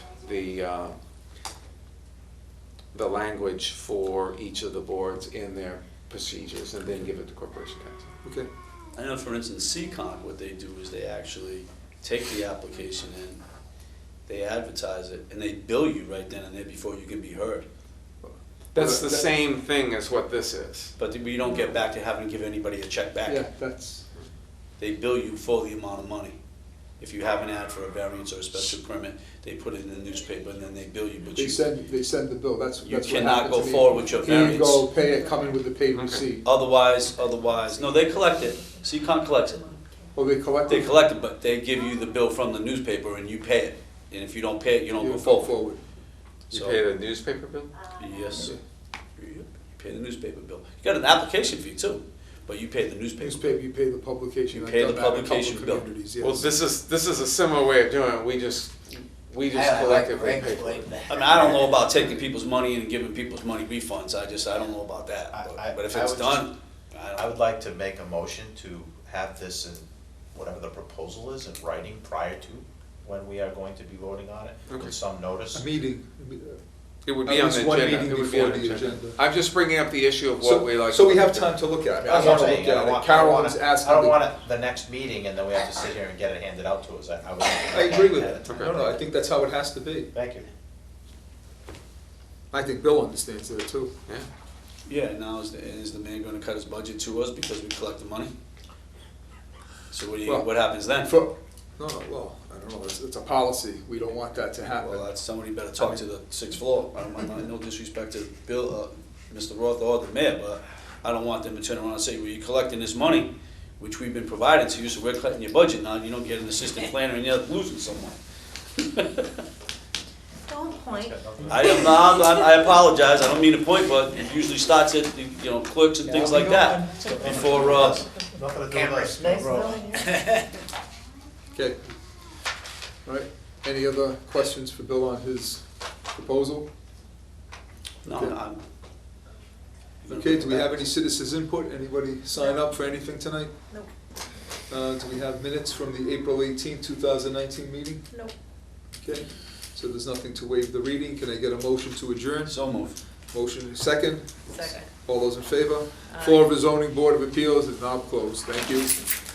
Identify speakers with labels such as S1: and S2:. S1: the, uh, the language for each of the boards in their procedures and then give it to corporation council.
S2: Okay,
S3: I know, for instance, CCON, what they do is they actually take the application in, they advertise it, and they bill you right then and there before you can be heard.
S1: That's the
S2: That-
S1: same thing as what this is.
S3: But we don't get back to having to give anybody a check
S2: yeah,
S3: back.
S2: that's,
S3: They bill you for the amount of money. If you have an ad for a variance or a special permit, they put it in the newspaper and then they bill you, but
S2: they
S3: you,
S2: send, they send the bill, that's, that's what
S3: you
S2: happened to me.
S3: cannot go forward with your
S2: Here you go,
S3: variance.
S2: pay it, come in with the paid
S1: Okay.
S2: receipt,
S3: Otherwise, otherwise, no, they collect it. CCON collects it.
S2: or they collect
S3: They
S2: it.
S3: collect it, but they give you the bill from the newspaper and you pay it. And if you don't pay it, you don't
S2: you
S3: go forward.
S2: forward.
S1: You
S3: So-
S1: pay the newspaper bill?
S3: Yes, sir. You pay the newspaper bill. You got an application fee too, but you pay the newspaper. bill.
S2: Newspaper, you pay the publication.
S3: You
S2: I've
S3: pay
S2: done
S3: the
S2: that in a couple
S3: publication
S2: of
S3: bill.
S2: communities,
S1: Well,
S2: yes.
S1: this is, this is a similar way of doing it, we just, we just
S4: I like
S1: collectively pay for it.
S4: Greg's way
S3: I mean, I don't know about taking people's money and giving people's money refunds. I just, I don't know about that.
S4: I-
S3: But-
S4: I-
S3: But if
S4: I
S3: it's
S4: would just-
S3: done, I
S4: I
S3: don't,
S4: would like to make a motion to have this in whatever the proposal is in writing prior to when we are going to be voting on it,
S1: Okay.
S4: with some notice.
S2: Meeting,
S1: It would
S2: At
S1: be on the
S2: least one
S1: agenda,
S2: meeting
S1: it would be on
S2: before
S1: the
S2: the
S1: agenda.
S2: agenda.
S1: I'm just bringing up the issue of what we
S2: so,
S1: like.
S2: so we have time to look at it, I
S4: That's what I'm
S2: wanna
S4: saying.
S2: look
S4: I don't
S2: at it,
S4: want- I don't
S2: Carolyn's
S4: wanna-
S2: asking.
S4: I don't
S2: me-
S4: want it, the next meeting and then we have to sit here and get it handed out to us, I, I would.
S2: I agree with it,
S1: Okay.
S2: no, no, I think that's how it has to be,
S4: Thank you.
S2: I think Bill understands that too.
S1: Yeah.
S3: yeah, now is, the- is the man gonna cut his budget to us because we collect the money? So what do you,
S2: Well,
S3: what happens then?
S2: For, no, no, well, I don't know, it's, it's a policy, we don't want that to happen.
S3: Well, that's, somebody
S2: oh.
S3: better talk to the sixth floor. I don't, I don't- no disrespect to Bill, uh, Mr. Roth or the mayor, but I don't want them to turn around and say, well, you're collecting this money, which we've been providing to you, so we're cutting your budget now, you don't get an assistant planner and you're losing someone.
S5: Don't point.
S3: I am not, I'm- I apologize, I don't mean to point, but it usually starts at, the, you know, clerks and things like that. Before, uh,
S4: Nothing to do with us.
S5: Cameras, nice knowing you.
S2: Okay. All right, any other questions for Bill on his proposal?
S3: no, I'm.
S2: Okay, do we have any citizens input? Anybody sign up for anything tonight?
S5: Nope,
S2: Uh, do we have minutes from the April eighteenth, two thousand nineteen meeting?
S5: nope.
S2: Okay, so there's nothing to waive the reading. Can I get a motion to adjourn?
S3: So moved.
S2: Motion is second.
S5: Second.
S2: All those in favor? Floor of the zoning board of appeals is now closed. Thank you.